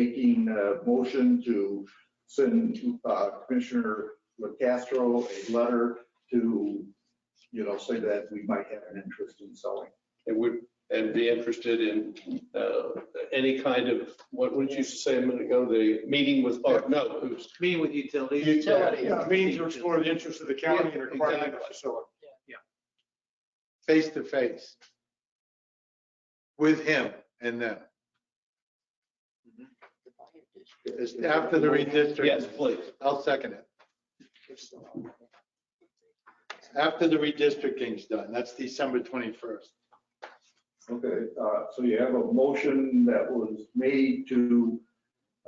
making a motion to send uh, Commissioner LaCastro a letter to, you know, say that we might have an interest in selling. and would, and be interested in uh, any kind of, what what did you say a minute ago, the meeting with, oh, no, it was. Meeting with utilities. Utility. Yeah, means to explore the interest of the county in acquiring the Exactly. facility. face to face with him and them. It's after the redistricting. Yes, please. I'll second it. After the redistricting's done, that's December 21st. Okay, uh, so you have a motion that was made to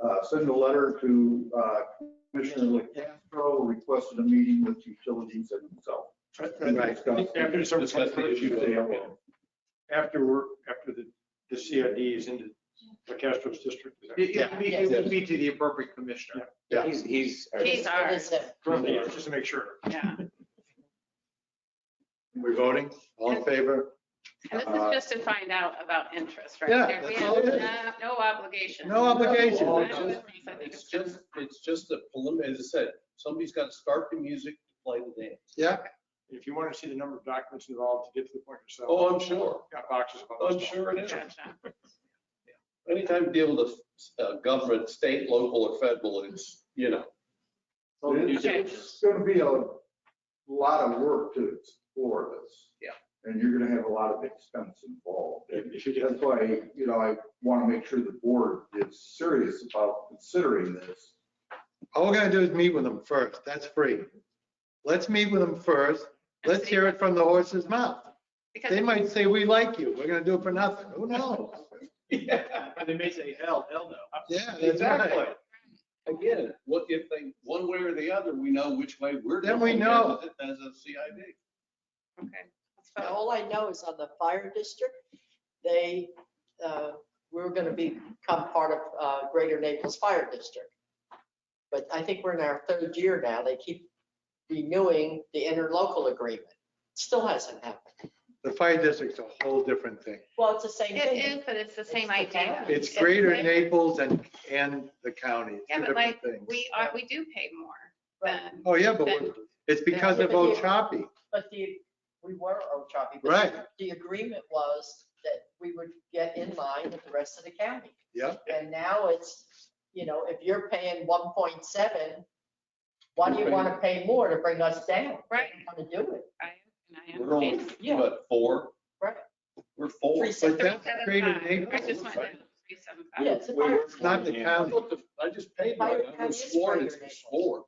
uh, send a letter to uh, Commissioner LaCastro requested a meeting with utilities and himself. Right. After December Discuss the issue. 21st, Tuesday, okay. after we're, after the, the CID is into the Castro's district. is that- It it would be, it would be to the appropriate commissioner. Yeah. He's, he's. He's ours. Currently, yeah, Just to make sure. Yeah. We're voting, all in favor? And this Uh, is just to find out about interest, right? Yeah, There- We that's all have it is. no- no obligation. No obligation. I Well, think it's It's just- just, it's just a preliminary, as I said, somebody's got to start the music to play the dance. Yeah, If you want to see the number of documents involved to get to the point yourself. Oh, I'm sure. Got boxes. of all I'm this stuff. sure it is. Gotcha. Anytime you deal with a uh, government, state, local or federal, it's, you know, It's going to be a lot of work to explore this. Yeah. And you're going to have a lot of expense involved. If if you get, That's why, you know, I want to make sure the board is serious about considering this. all we're gonna do is meet with them first, that's free. Let's meet with them first, let's hear it from the horse's mouth. Because They might say, we like you, we're gonna do it for nothing, who knows? But they may say, hell, hell no. Yeah, that's Exactly. right. Again, what if they, one way or the other, we know which way we're. Then we going know. with it As a CID. Okay, that's But fine. all I know is on the fire district, they, uh, we're going to become part of uh, Greater Naples Fire District. But I think we're in our third year now. They keep renewing the interlocal agreement. Still hasn't happened. The fire district's a whole different thing. Well, it's the same It thing. is, but it's the It's same the idea. town. It's greater like- Naples and, and the county. It's Yeah, two but different like, things. we are, we do pay more than, Oh, yeah, but we're- it's because Yeah. of old choppy. But the, we were Okeechobee. but Right. The agreement was that we would get in line with the rest of the county. Yep. And now it's, you know, if you're paying one point seven, why do you want to pay more to bring us down? Right. Want to do it, I, and I We're only, understand. Yeah. what, four? Right. We're four. Three But cents. that's greater 375. Naples. I just went down to 375. yeah, it's a Wait, fire- It's not the I county, thought the- I just paid mine. I was sworn it's just four.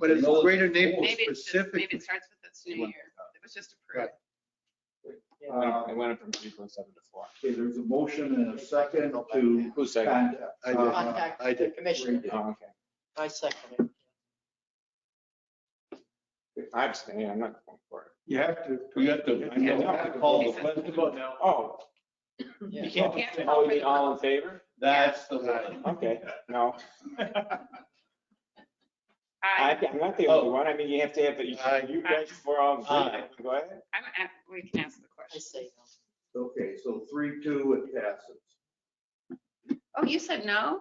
but it's greater Naples Maybe it's just, maybe specifically. it starts with this new One. year. It was just approved. Uh, It went up from three point seven to four. Okay, there's a motion and a second to. Who's second? contact, I did. uh, Contact I the did. commissioner, Oh, okay. I second it. I abstain, I'm not going for it. you have to. We have to, I have to call the question. Vote no. Oh, Yeah. can't- Can't oh, vote you for mean the- all in favor? That's the one. Okay, no, I, I, I'm not the Oh, only one, I mean, you have to have, the- you Aye. you guys were all, in favor. go ahead. I'm, at- we can ask the I question. say no. Okay, so three, two, it passes. Oh, you said no?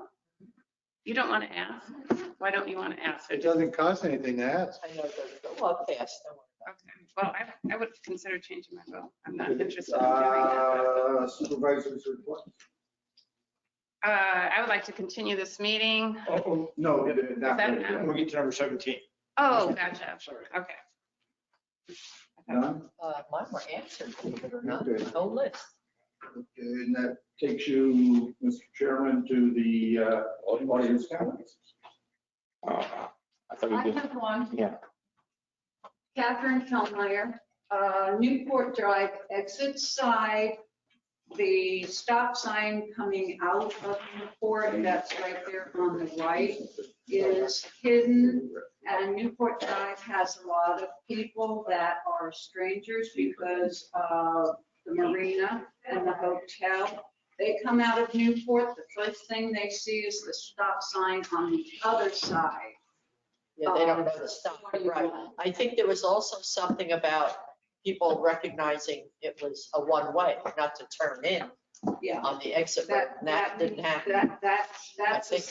You don't want to ask? Why don't you want to ask? It doesn't cost anything to ask. I know, it doesn't go well, pass, don't worry about Okay. Well, I, I would consider changing my vote. I'm not interested in doing that. Uh, Supervisors report? Uh, I would like to continue this meeting. Oh, No, it- it- not. that ready yet. oh, We'll get to number 17. Oh, gotcha. Sorry. Okay. None? it. Uh, Mine were answered, believe it or not, Okay. no list. Okay, And that takes you, Mr. Chairman, to the uh, audience comments. Oh, I thought I we did, have one. yeah. Catherine Kellmeyer, uh, Newport Drive, exit side, the stop sign coming out of Newport, that's right there on the right, is hidden. And Newport Drive has a lot of people that are strangers because of the marina and the hotel. They come out of Newport, the first thing they see is the stop sign on the other side. Yeah, they don't Um, know the stop, what do you right. want? I think there was also something about people recognizing it was a one-way, not to turn in. yeah. on the exit, road, That, and that didn't happen. That, that, I that's a think